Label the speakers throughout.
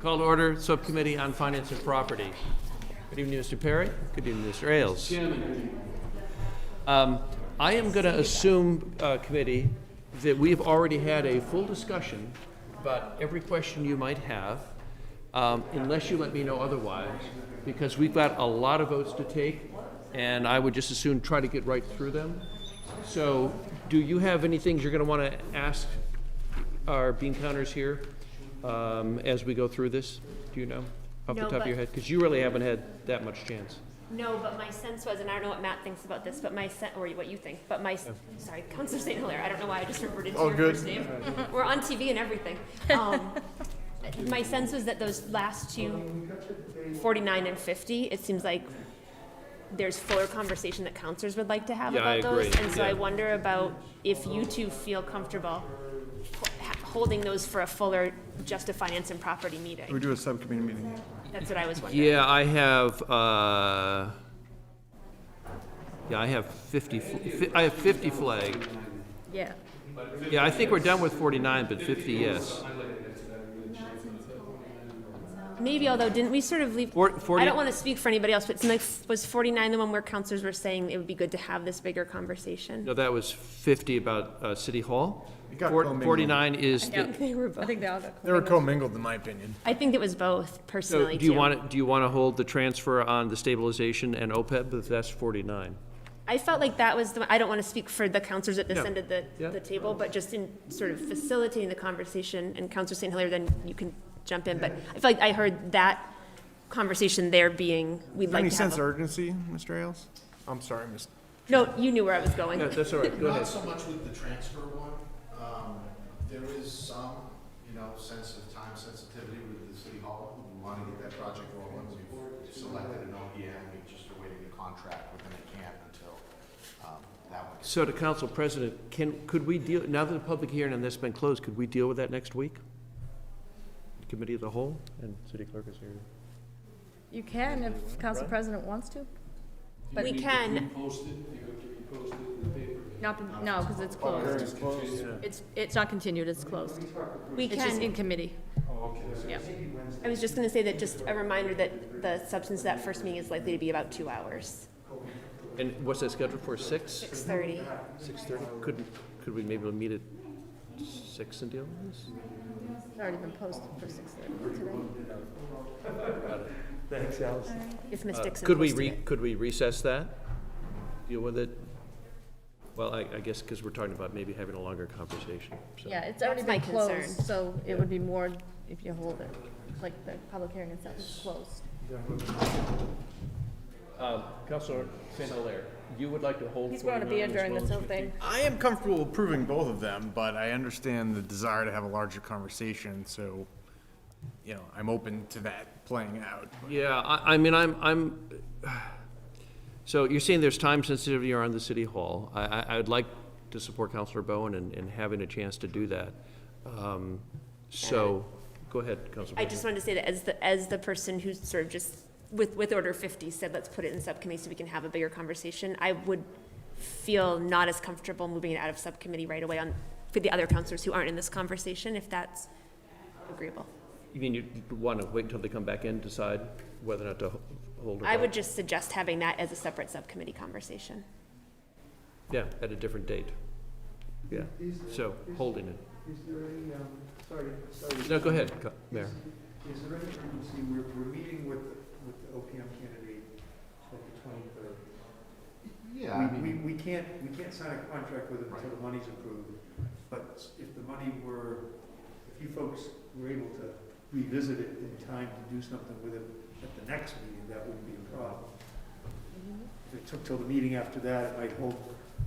Speaker 1: Call to order, Subcommittee on Finance and Property. Good evening, Mr. Perry. Good evening, Mr. Ailes. Um, I am going to assume, uh, committee, that we've already had a full discussion about every question you might have, um, unless you let me know otherwise, because we've got a lot of votes to take, and I would just as soon try to get right through them. So, do you have any things you're going to want to ask our bean counters here um, as we go through this? Do you know off the
Speaker 2: No,
Speaker 1: top of your
Speaker 2: but-
Speaker 1: head? Because you really haven't had that much chance.
Speaker 2: No, but my sense was, and I don't know what Matt thinks about this, but my sen, or what you think, but my, s- sorry, Counselor St. Hilaire, I don't know why I just reverted to
Speaker 3: Oh,
Speaker 2: your
Speaker 3: good.
Speaker 2: first name. We're on TV and everything. Um, My sense was that those last two, 49 and 50, it seems like there's fuller conversation that counselors would like to have
Speaker 1: Yeah, I
Speaker 2: about those.
Speaker 1: agree,
Speaker 2: And so I
Speaker 1: yeah.
Speaker 2: wonder about if you two feel comfortable ho- holding those for a fuller just a finance and property
Speaker 3: We
Speaker 2: meeting.
Speaker 3: do a subcommittee meeting.
Speaker 2: That's what I was wondering.
Speaker 1: Yeah, I have, uh, yeah, I have 50, fl- fi- I have 50 flag.
Speaker 4: Yeah.
Speaker 1: Yeah, I think we're done with 49, but 50, yes.
Speaker 2: Maybe, although, didn't we sort of leave?
Speaker 1: Four- 40
Speaker 2: I don't want to speak for anybody else, but it seemed like, was 49 the one where counselors were saying it would be good to have this bigger conversation?
Speaker 1: No, that was 50 about uh, City Hall.
Speaker 3: You got
Speaker 1: Four-
Speaker 3: commingled.
Speaker 1: 49 is, the-
Speaker 2: They were
Speaker 4: I
Speaker 2: both.
Speaker 4: think they all got.
Speaker 3: They were commingled, in my opinion.
Speaker 2: I think it was both,
Speaker 1: so
Speaker 2: personally,
Speaker 1: do you
Speaker 2: too.
Speaker 1: want, to do you want to hold the transfer on the stabilization and OPEB? But That's 49.
Speaker 2: I felt like that was the, I don't want to speak for the counselors at this
Speaker 1: No.
Speaker 2: end of the,
Speaker 1: Yeah.
Speaker 2: the table, but just in sort of facilitating the conversation, and Counselor St. Hilaire, then you can jump in, but I feel like I heard that conversation there being, we'd like
Speaker 3: Any
Speaker 2: to have.
Speaker 3: sense of
Speaker 2: a-
Speaker 3: urgency, Mr. Ailes? I'm sorry, Mr.
Speaker 2: No, you knew where I was going.
Speaker 1: Yeah, That's all right, go ahead.
Speaker 5: Not so much with the transfer one. Um, There is some, you know, sense of time sensitivity with the city hall. We want to get that project rolling. We've selected an OPM. We just are waiting to contract with them. They can't until um, that one. gets-
Speaker 1: So to Council President, can, could we deal, now that the public hearing on this has been closed, could we deal with that next week? Committee of the Whole, and City Clerk is here.
Speaker 4: You can if council president wants to. But
Speaker 2: We can,
Speaker 4: not, no, because it's closed. It's, it's not continued, it's closed.
Speaker 2: we
Speaker 4: It's just in
Speaker 2: can,
Speaker 4: committee. Yeah.
Speaker 2: I was just gonna say that, just a reminder that the substance of that first meeting is likely to be about two hours,
Speaker 1: And what's that scheduled for, six?
Speaker 2: six thirty.
Speaker 1: Six thirty? Could, could we maybe meet at six and deal with this?
Speaker 4: It's already been posted for six thirty today.
Speaker 2: If Ms. Dixon
Speaker 1: Uh, Could we
Speaker 2: posted
Speaker 1: re,
Speaker 2: it.
Speaker 1: could we recess that? Deal with it? Well, I, I guess, because we're talking about maybe having a longer conversation, so.
Speaker 4: Yeah, it's
Speaker 2: That's
Speaker 4: already
Speaker 2: my
Speaker 4: been closed,
Speaker 2: concern.
Speaker 4: so it would be more if you hold it, like the public hearing itself is closed.
Speaker 1: Um, Councilor St. Hilaire, you would like to hold
Speaker 4: He's going to be
Speaker 1: 49 as
Speaker 4: during
Speaker 1: well
Speaker 4: this
Speaker 1: as
Speaker 4: whole
Speaker 1: 50?
Speaker 4: thing.
Speaker 3: I am comfortable approving both of them, but I understand the desire to have a larger conversation, so, you know, I'm open to that playing out.
Speaker 1: Yeah, I, I mean, I'm, I'm, so you're saying there's time sensitivity around the city hall. I, I, I would like to support Counselor Bowen in, in having a chance to do that. Um, So, go ahead, Counselor.
Speaker 2: I
Speaker 1: Bowen.
Speaker 2: just wanted to say that as the, as the person who sort of just, with, with order fifty said, let's put it in subcommittee so we can have a bigger conversation, I would feel not as comfortable moving it out of subcommittee right away on, for the other counselors who aren't in this conversation, if that's agreeable.
Speaker 1: You mean you want to wait until they come back in, decide whether or not to ho- hold or
Speaker 2: I
Speaker 1: not?
Speaker 2: would just suggest having that as a separate subcommittee conversation.
Speaker 1: Yeah, at a different date. Yeah, so, holding it.
Speaker 6: Is there any, um, sorry, sorry.
Speaker 1: No, go ahead, Co- Mayor.
Speaker 6: Is there any urgency, we're, we're meeting with, with the OPM candidate at the twenty-third.
Speaker 5: Yeah, I
Speaker 6: We,
Speaker 5: mean,
Speaker 6: we can't, we can't sign a contract with them until the money's approved, but if the money were, if you folks were able to revisit it in time to do something with it at the next meeting, that wouldn't be a problem. If it took till the meeting after that, it might hold,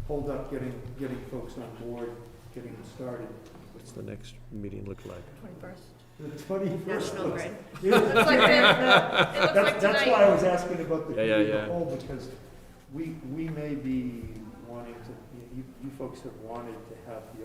Speaker 6: hold up getting, getting folks on board, getting them started.
Speaker 1: What's the next meeting look like?
Speaker 4: Twenty-first.
Speaker 6: The twenty-first.
Speaker 2: National Grid.
Speaker 4: It looks like
Speaker 6: That's, that's why I was asking about the
Speaker 1: Yeah, yeah,
Speaker 6: committee of
Speaker 1: yeah.
Speaker 6: the whole, because we, we may be wanting to, you, you folks have wanted to have the